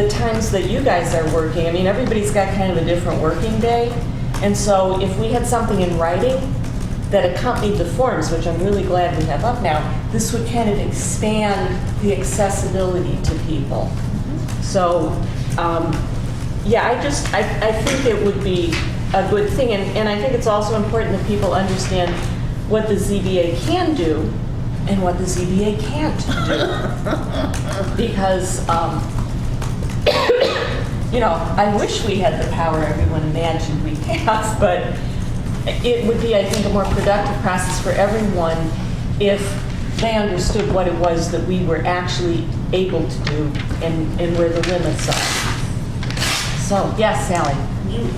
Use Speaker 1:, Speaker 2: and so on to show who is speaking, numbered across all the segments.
Speaker 1: the times that you guys are working, I mean, everybody's got kind of a different working day. And so if we had something in writing that accompanied the forms, which I'm really glad we have up now, this would kind of expand the accessibility to people. So, um, yeah, I just, I, I think it would be a good thing. And, and I think it's also important that people understand what the ZBA can do and what the ZBA can't do. Because, um, you know, I wish we had the power everyone imagined we have, but it would be, I think, a more productive process for everyone if they understood what it was that we were actually able to do and, and where the limits are. So, yes, Sally?
Speaker 2: You,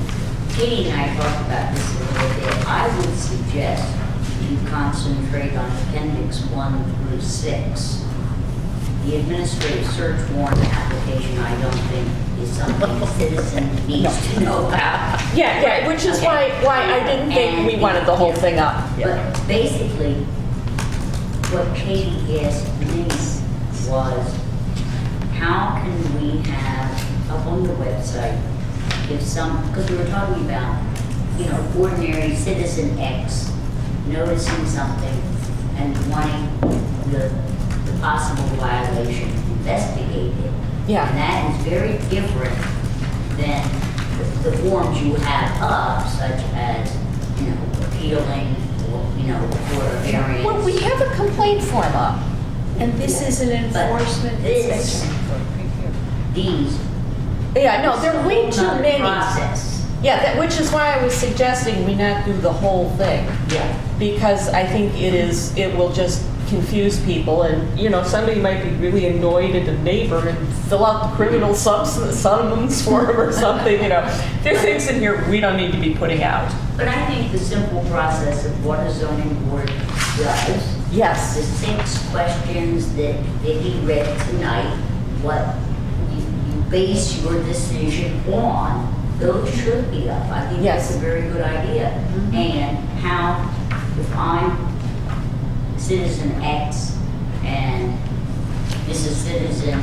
Speaker 2: Katie and I talked about this a little bit. I would suggest you concentrate on appendix one through six. The administrative search warrant application, I don't think is something a citizen needs to know about.
Speaker 1: Yeah, yeah, which is why, why I didn't think we wanted the whole thing up.
Speaker 2: But basically, what Katie asked me was, how can we have up on the website, if some, because we were talking about, you know, ordinary citizen X noticing something and wanting the, the possible violation investigated.
Speaker 1: Yeah.
Speaker 2: And that is very different than the- the forms you have up, such as, you know, appealing, or, you know, for a variance.
Speaker 3: Well, we have a complaint form up, and this is an
Speaker 2: But
Speaker 3: enforcement
Speaker 2: this-
Speaker 3: inspection.
Speaker 2: These.
Speaker 1: Yeah, no, there are way
Speaker 2: It's a whole
Speaker 1: too
Speaker 2: nother
Speaker 1: many.
Speaker 2: Process,
Speaker 1: Yeah, that, which is why I was suggesting we not do the whole thing.
Speaker 2: yeah.
Speaker 1: because I think it is, it will just confuse people, and, you know, somebody might be really annoyed at a neighbor and fill out the criminal subs- summons form or something, you know. There are things in here we don't need to be putting out.
Speaker 2: But I think the simple process of what a zoning board does, the
Speaker 1: Yes,
Speaker 2: six questions that Vicky read tonight, what you you base your decision on, those should be up. I think
Speaker 1: Yes.
Speaker 2: that's
Speaker 1: Mm-hmm.
Speaker 2: a very good idea. And how, if I'm citizen X and this is citizen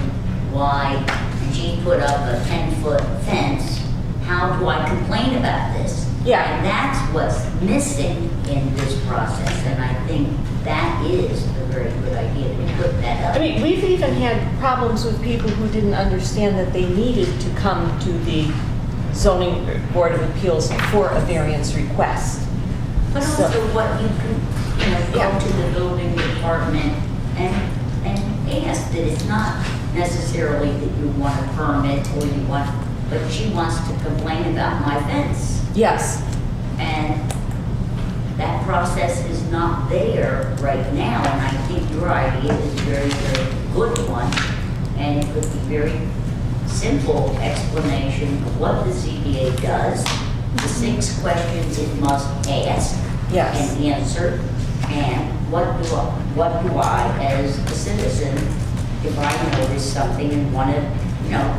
Speaker 2: Y, and she put up a 10-foot fence, how do I complain about this?
Speaker 1: Yeah.
Speaker 2: And that's what's missing in this process, and I think that is a very good idea to put
Speaker 1: I
Speaker 2: that up.
Speaker 1: mean, we've even had problems with people who didn't understand that they needed to come to the zoning board of appeals for a variance request.
Speaker 2: But
Speaker 1: so-
Speaker 2: also what you can, you know,
Speaker 1: Yeah.
Speaker 2: go to the building department and, and ask that it's not necessarily that you want a permit or you want, but she wants to complain about my fence.
Speaker 1: Yes,
Speaker 2: And that process is not there right now, and I think your idea is a very, very good one. And it would be very simple explanation of what the ZBA does, the six questions it must ask
Speaker 1: Yes.
Speaker 2: and answer, and what do I, what do I as a citizen, if I notice something and want to, you know,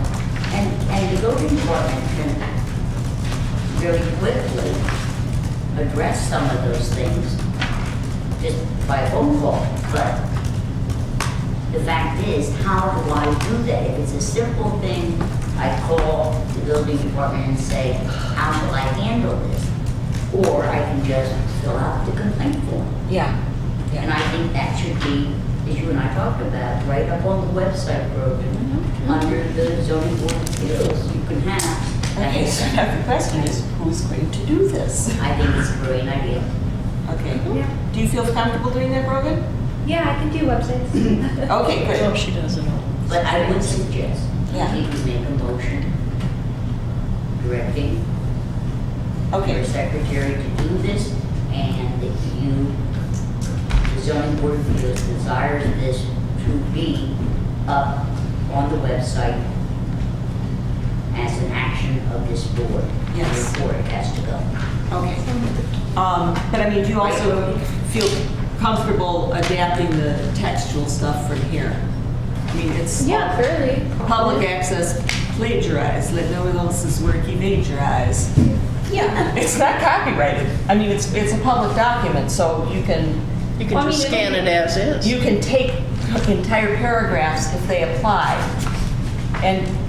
Speaker 2: and, and the building department can very quickly address some of those things just by phone call. But the fact is, how do I do that? If it's a simple thing, I call the building department and say, how shall I handle this? Or I can just fill out the complaint form.
Speaker 1: yeah,
Speaker 2: And
Speaker 1: yeah.
Speaker 2: I think that should be, as you and I talked about, right up on the website, Brogan, under the zoning board of appeals, you can have.
Speaker 4: Okay, so now the question is, who's going to do this?
Speaker 2: I think it's a brilliant idea.
Speaker 4: Okay.
Speaker 5: Yeah.
Speaker 4: Do you feel comfortable doing that, Brogan?
Speaker 5: Yeah, I can do websites.
Speaker 4: Okay, good.
Speaker 3: she does it all.
Speaker 2: But I would suggest,
Speaker 4: Yeah.
Speaker 2: that you make a motion directing your
Speaker 4: Okay,
Speaker 2: secretary to do this, and that you, the zoning board of appeals desires this to be up on the website as an action of this board.
Speaker 4: Yes.
Speaker 2: Therefore, it has to go.
Speaker 4: okay. Um, But I mean, do you also feel comfortable adapting the textual stuff from here? I mean, it's
Speaker 5: Yeah, fairly.
Speaker 4: public access plagiarized, let no one else's work plagiarize.
Speaker 1: Yeah. It's not copyrighted. I mean, it's, it's a public document, so you can
Speaker 3: You
Speaker 5: Well, I
Speaker 3: can just
Speaker 5: mean, it-
Speaker 3: scan it as is.
Speaker 1: You can take entire paragraphs if they apply and